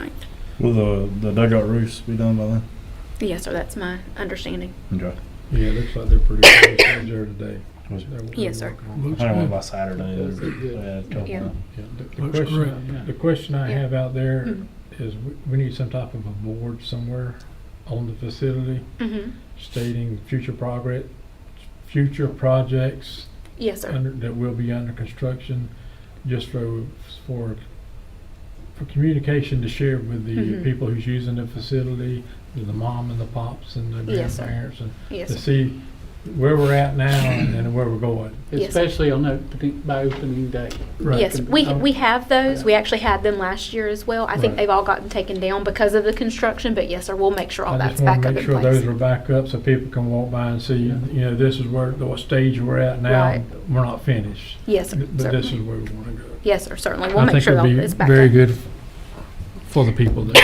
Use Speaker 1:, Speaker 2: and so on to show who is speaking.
Speaker 1: Will the, the dugout roofs be done by then?
Speaker 2: Yes, sir, that's my understanding.
Speaker 1: Okay.
Speaker 3: Yeah, it looks like they're pretty close to there today.
Speaker 1: Was-
Speaker 3: They're- they're
Speaker 2: Yes, sir.
Speaker 3: working
Speaker 1: I
Speaker 3: on it.
Speaker 4: Looks
Speaker 1: don't know
Speaker 4: good.
Speaker 1: by Saturday.
Speaker 3: That's
Speaker 1: or-
Speaker 3: it, yeah.
Speaker 1: yeah, a couple
Speaker 2: Yeah.
Speaker 1: of-
Speaker 3: Yeah, the- The
Speaker 4: Looks great,
Speaker 3: question,
Speaker 4: yeah.
Speaker 3: the question I
Speaker 2: Yeah.
Speaker 3: have out there
Speaker 2: Mhm.
Speaker 3: is we- we need some type of a board somewhere on the facility
Speaker 2: Mhm.
Speaker 3: stating future progress, future projects
Speaker 2: Yes, sir.
Speaker 3: under, that will be under construction, just for, for, for communication to share with the
Speaker 2: Mhm.
Speaker 3: people who's using the facility, with the mom and the pops and the
Speaker 2: Yes, sir.
Speaker 3: grandparents, and
Speaker 2: Yes,
Speaker 3: to
Speaker 2: sir.
Speaker 3: see where we're at now and then where we're going.
Speaker 2: Yes.
Speaker 4: Especially on that, by opening day.
Speaker 3: Right.
Speaker 2: Yes, we, we have those. We actually had them last year as well. I think
Speaker 3: um, Right.
Speaker 2: they've all gotten taken down because of the construction, but yes, sir, we'll make sure all
Speaker 3: I
Speaker 2: that's
Speaker 3: just want
Speaker 2: back
Speaker 3: to
Speaker 2: up
Speaker 3: make
Speaker 2: in
Speaker 3: sure those
Speaker 2: place.
Speaker 3: are back up so people can walk by and see, you
Speaker 4: Yeah.
Speaker 3: know, this is where, what stage we're at now.
Speaker 2: Right.
Speaker 3: We're not finished,
Speaker 2: Yes, sir.
Speaker 3: but this is
Speaker 2: certainly.
Speaker 3: where we want to go.
Speaker 2: Yes, sir, certainly. We'll
Speaker 3: I
Speaker 2: make
Speaker 3: think
Speaker 2: sure
Speaker 3: it'd
Speaker 2: that
Speaker 3: be
Speaker 2: it's back up.
Speaker 3: Very good for the people that